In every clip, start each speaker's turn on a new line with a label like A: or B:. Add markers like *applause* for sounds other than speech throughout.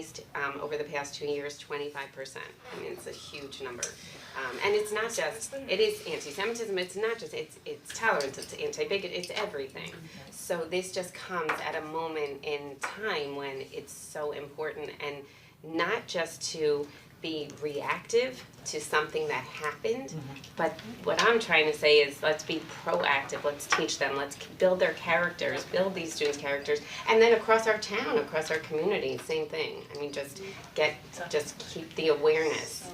A: raised, um, over the past two years, twenty-five percent. I mean, it's a huge number. Um, and it's not just, it is anti-Semitism, it's not just, it's, it's tolerance, it's anti-bigot, it's everything. So this just comes at a moment in time when it's so important and not just to be reactive to something that happened,
B: Mm-hmm.
A: but what I'm trying to say is let's be proactive, let's teach them, let's c- build their characters, build these students' characters, and then across our town, across our community, same thing. I mean, just get, just keep the awareness.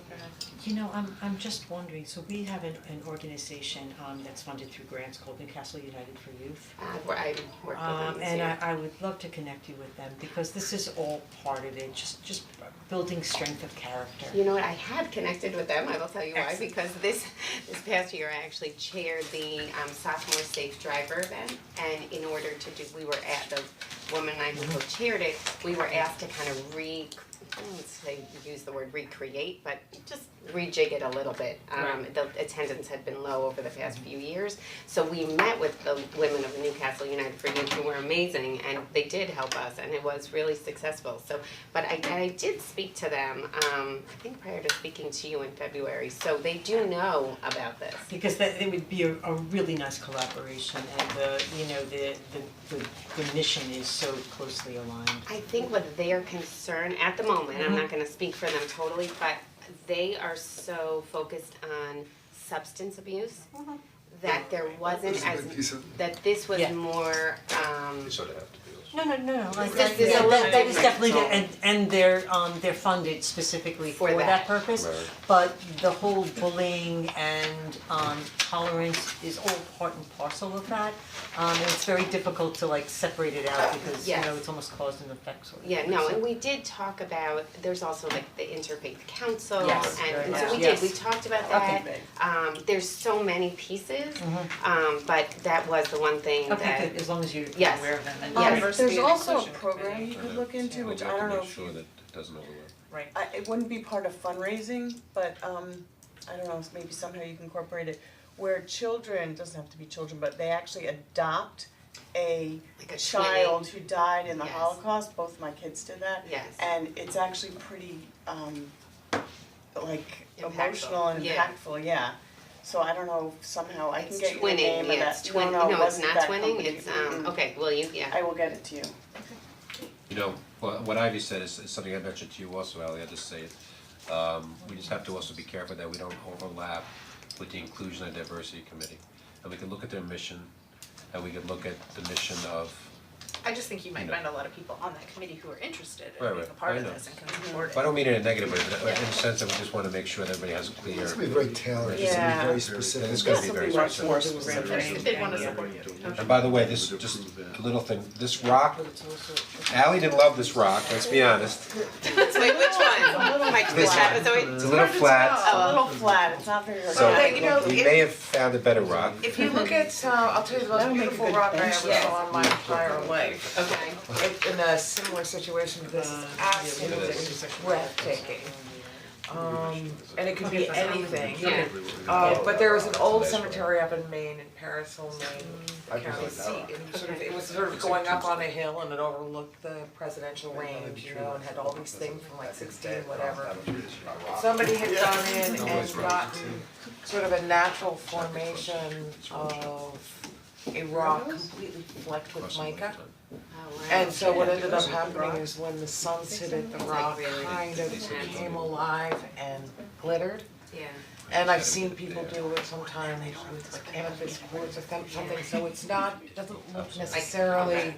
B: You know, I'm I'm just wondering, so we have an an organization um that's funded through grants called Newcastle United for Youth.
A: Uh, where I work with them
B: Um
A: this
B: and I
A: year.
B: I would love to connect you with them because this is all part of it, just just building strength of character.
A: You know what, I have connected with them, I will tell you why,
B: Excellent.
A: because this, this past year, I actually chaired the um, sophomore safe driver event. And in order to do, we were at, the woman and I who co-chaired it, we were asked to kind of re, I don't wanna say, use the word recreate, but just rejig it a little bit. Um, the attendance had been low over the past few years, so we met with the women of Newcastle United for Youth who were amazing and they did help us and it was really successful, so. But I, and I did speak to them, um, I think prior to speaking to you in February, so they do know about this.
B: Because that it would be a a really nice collaboration and the, you know, the the the the mission is so closely aligned.
A: I think what their concern at the moment, I'm not gonna speak for them totally, but they are so focused on substance abuse that there wasn't
C: It's a
A: as,
C: big piece of-
A: that this was
B: Yeah.
A: more, um,
C: You sort of have to be.
B: No, no, no, no, I
A: This
B: think
A: is
B: that
A: a
B: that that is
A: little
B: definitely,
A: different.
B: and and they're um they're funded specifically
A: For
B: for that
A: that.
B: purpose.
C: Right.
B: But the whole bullying and um tolerance is all part and parcel of that. Um and it's very difficult to like separate it out because you
A: Yes.
B: know, it's almost cause and effect sort of.
A: Yeah,
B: thing,
A: no,
B: so-
A: and we did talk about, there's also like the interfaith council and
B: Yes, very
A: and
B: much.
A: so we
B: Yes.
A: did, we talked about
B: Okay.
A: that. Um there's so many pieces, um but that was the one thing that
B: Okay, good, as long as you're
A: Yes.
B: aware of them and
A: Yes.
D: Um,
B: diverse-
D: there's
E: and
D: also a
E: inclusion
D: program
E: committee.
D: you could look into, which I don't know if you,
C: Make sure that it doesn't overlap.
B: right.
D: I, it wouldn't be part of fundraising, but, um, I don't know, maybe somehow you can incorporate it, where children, doesn't have to be children, but they actually adopt a
A: Like a
D: child who died in the
A: Yes.
D: Holocaust, both my kids did that.
A: Yes.
D: And it's actually pretty, um, like
A: Impactful.
D: emotional and
A: Yeah.
D: impactful, yeah. So I don't know, if somehow I can
A: it's
D: get you the name
A: twinning,
D: of
A: yeah,
D: that,
A: it's
D: no,
A: twin,
D: no, it
A: no, it's
D: wasn't
A: not
D: that
A: twinning,
D: company.
A: it's um,
D: Mm-mm.
A: okay, well, you,
D: I
A: yeah,
D: will get it to you.
C: You know, what what Ivy said is is something I mentioned to you also, Ally, I just say it. Um, we just have to also be careful that we don't overlap with the inclusion and diversity committee. And we can look at their mission, and we can look at the mission of,
E: I just think you might find a lot of people on that committee who are interested in
C: Right,
E: being a
C: right.
E: part
C: I
E: of
C: know.
E: this and can support it.
C: I don't mean it in a negative way, but in the sense that we just wanna make sure that everybody has a clear.
F: It's gonna be very tailored, it's gonna
D: Yeah.
F: be very specific.
C: It's gonna be very
D: Something
C: specific.
D: more forceful.
E: If they wanna support you.
C: And by the way, this, just a little thing, this rock,
B: But it's also,
C: Ally didn't love this rock, let's be honest.
A: it's like, which one? Like this
D: flat.
A: episode?
C: It's a little
E: Hard to
C: flat.
E: tell.
D: A little flat, it's not very.
C: So
E: But, you know,
C: we
E: if-
C: may have found a better rock.
E: *laughs* If you look at, uh, I'll tell you the most
D: That'll make a
E: beautiful
D: good
E: rock I ever
D: bench
E: saw in my entire life.
A: Okay,
E: It- In a similar situation, this is
B: Uh,
E: absolutely breathtaking. Um, and it could be anything.
A: yeah,
E: Uh, but there was an old cemetery up in Maine, in Paris Hill, Maine, county seat, and sort of, it was sort of going up on a hill and it overlooked the presidential range, you know, and had all these things from like sixteen, whatever. Somebody had gone in and gotten sort of a natural formation of a rock completely flecked with mica.
A: oh, wow.
E: And so what ended up happening is when the sun hit it, the rock
A: really
E: kind of came alive and glittered.
A: yeah,
E: And I've seen people do it sometimes with like amethyst quartz or some- something, so it's not, it doesn't look necessarily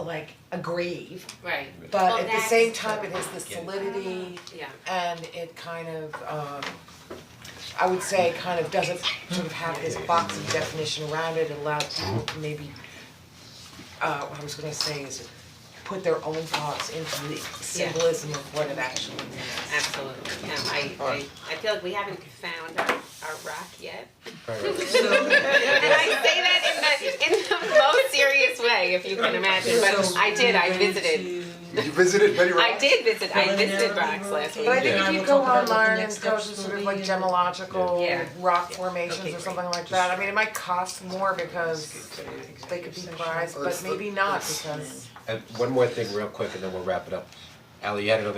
E: like a grave,
A: right, Well,
E: but at the same
A: that's-
E: time, it has this solidity
A: yeah,
E: and it kind of um I would say kind of doesn't sort of have this box of definition around it, allows people to maybe uh what I was gonna say is put their own thoughts into the symbolism of what it actually means.
A: absolutely, yeah, I I I feel like we haven't found our our rock yet. *laughs* And I say that in the in the most serious way, if you can imagine. But I did. I visited.
F: You visited many
A: I
F: rocks?
A: did visit. I visited rocks last
E: But I
A: week.
E: think if you
B: we'll
E: go
B: talk about what the
E: online
B: next
E: and go to
B: steps
E: sort of
B: will
E: like
B: be.
E: gemological
A: Yeah.
E: rock formations or something like that, I mean, it might cost more because they could be prized, but maybe not because
C: And one more thing real quick and then we'll wrap it up. Ally, you had another